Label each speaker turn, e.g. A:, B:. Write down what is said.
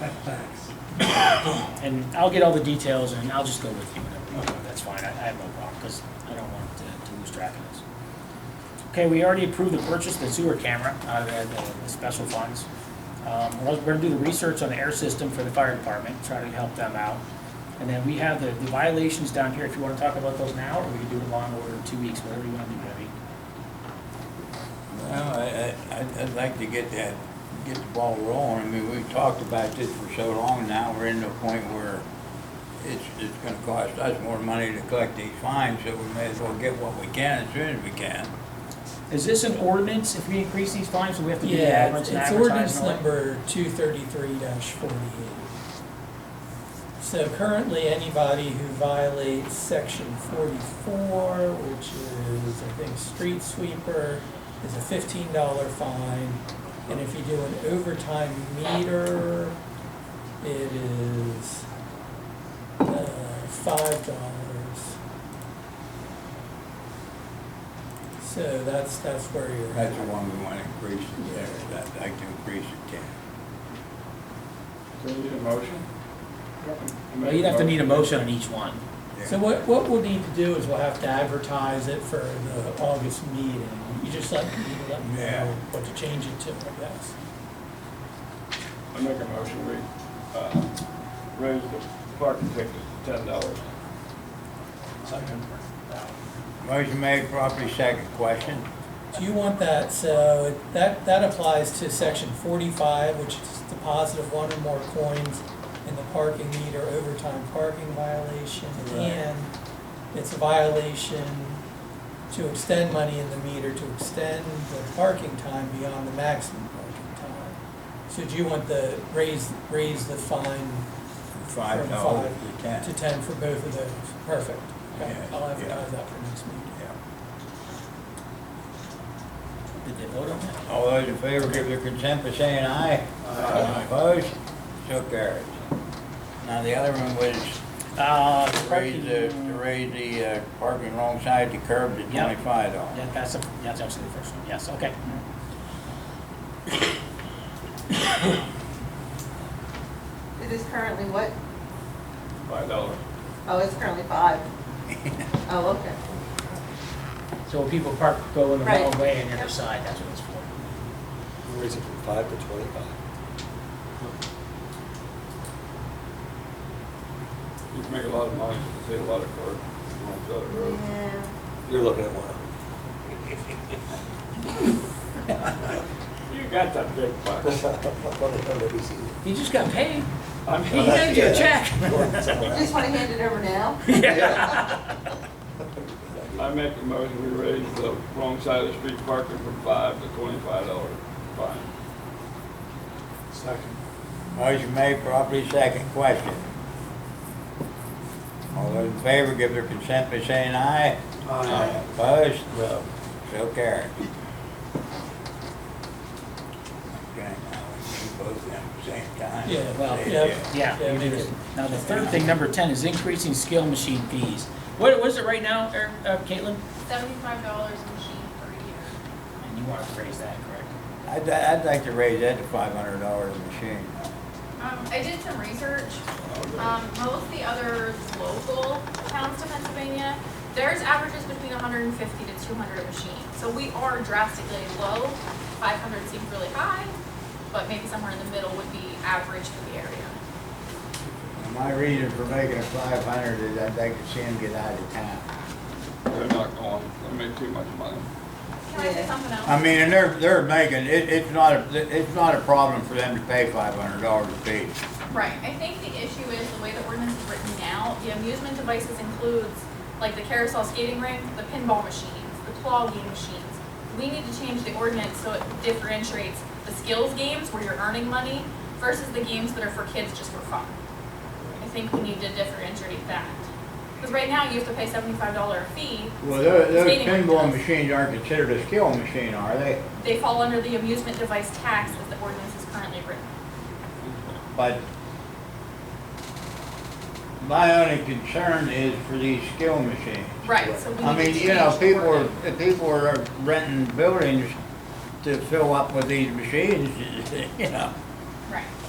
A: that tax.
B: And I'll get all the details and I'll just go with you. whatever. That's fine, I I have no problem, because I don't want to to lose track of this. Okay, we already approved the purchase of the sewer camera out of the- the special funds. Um, We're also- we're gonna do the research on the air system for the fire department, try to help them out. And then we have the the violations down here, if you want to talk about those now, or we can do it in law and order in two weeks, whatever you want to do, Debbie.
C: Well, I, I, I'd- I'd like to get that, get the ball rolling. I mean, we've talked about this for so long now, we're in the point where it's, it's gonna cost us more money to collect these fines, so we may as well get what we can as soon as we can.
B: Is this an ordinance if we increase these fines, do we have to do the
D: Yeah,
B: ordinance
D: it's
B: and
D: it's
B: advertise?
D: ordinance
B: and all that?
D: number two thirty-three forty-eight. So currently, anybody who violates section forty-four, which is, I think, street sweeper, is a fifteen dollar fine. And if you do an overtime meter, it is, uh, five dollars. So that's, that's where you're at.
C: That's the one we wanna increase, there, I'd like to increase it ten.
E: Do we need a motion?
B: Well, you'd have to need a motion on each one.
D: So what, what we'll need to do is we'll have to advertise it for the August meeting. You just let, you let me
C: Yeah.
D: know what to change it to, I guess.
E: I make a motion, we, uh, raise the parking ticket to ten dollars.
C: Motion made, properly second question.
D: Do you want that, so it- that, that applies to section forty-five, which is deposit of one or more coins in the parking meter overtime parking violation,
C: Right.
D: and it's a violation to extend money in the meter, to extend the parking time beyond the maximum parking time. So do you want the, raise, raise the fine
C: Five
D: From
C: dollars
D: five
C: to ten.
D: to ten for both of those? Perfect. Okay,
C: Yeah,
D: I'll
C: yeah.
D: advertise that for next meeting.
C: Yeah.
B: Did they vote on that?
C: All those in favor give their consent by saying aye. Aye. Opposed? So carried. Now, the other one was
B: Uh,
C: to raise the, to raise the uh, parking alongside the curb to
B: Yep.
C: twenty-five dollars.
B: Yeah, that's, the- that's actually the first one, yes, okay.
F: It is currently what?
E: Five dollars.
F: Oh, it's currently five. Oh, okay.
B: So when people park, go in the
F: Right.
B: wrong way and the other
F: Yep.
B: side, that's what it's for.
G: Raise it from five to twenty-five.
E: You can make a lot of money, you can save a lot of court, you won't build a road.
F: Yeah.
G: You're looking at one.
E: You got that big bucks.
B: You just got paid,
E: I'm
B: he handed you a check.
F: You just want to hand it over now?
E: I make a motion, we raise the wrong side of the street parking from five to twenty-five dollars fine.
G: Second.
C: Motion made, properly second. Question. All those in favor give their consent by saying aye. Aye. Opposed? No. So carried. Okay, now we do both of them at the same time.
D: Yeah,
B: well,
D: yeah.
B: Yeah,
D: Yeah,
B: you do
D: make
B: this.
D: it-
B: Now, the third thing, number ten, is increasing scale machine fees. What, what is it right now, Eric, uh, Caitlin?
H: seventy-five dollars a machine per year.
B: And you want to raise that, correct?
C: I'd, I'd like to raise that to five hundred dollars a machine.
H: Um, I did some research, um, most of the other local towns to Pennsylvania, theirs averages between hundred and fifty to two hundred a machine. So we are drastically low, five hundred seems really high, but maybe somewhere in the middle would be average for the area.
C: My reason for making it five hundred is I'd like to see them get out of town.
E: They're not going, they make too much money.
H: Can I say
F: Yeah.
H: something else?
C: I mean, and they're, they're making, it, it's not, a it's not a problem for them to pay five hundred dollars a piece.
H: Right, I think the issue is the way the ordinance is written now, the amusement devices includes, like the carousel skating rink, the pinball machines, the claw game machines. We need to change the ordinance so it differentiates the skills games where you're earning money versus the games that are for kids just for fun. I think we need to differentiate that. Because right now, you have to pay seventy-five dollar fee,
C: Well, those, those
H: Skating rink
C: pinball
H: does.
C: machines aren't considered a skill machine, are they?
H: they fall under the amusement device tax as the ordinance is currently written.
C: But my only concern is for these skill machines.
H: Right, so we
C: I
H: need
C: mean,
H: to
C: you know,
H: change the
C: people
H: ordinance.
C: are, people are renting buildings to fill up with these machines, you know.
H: Right.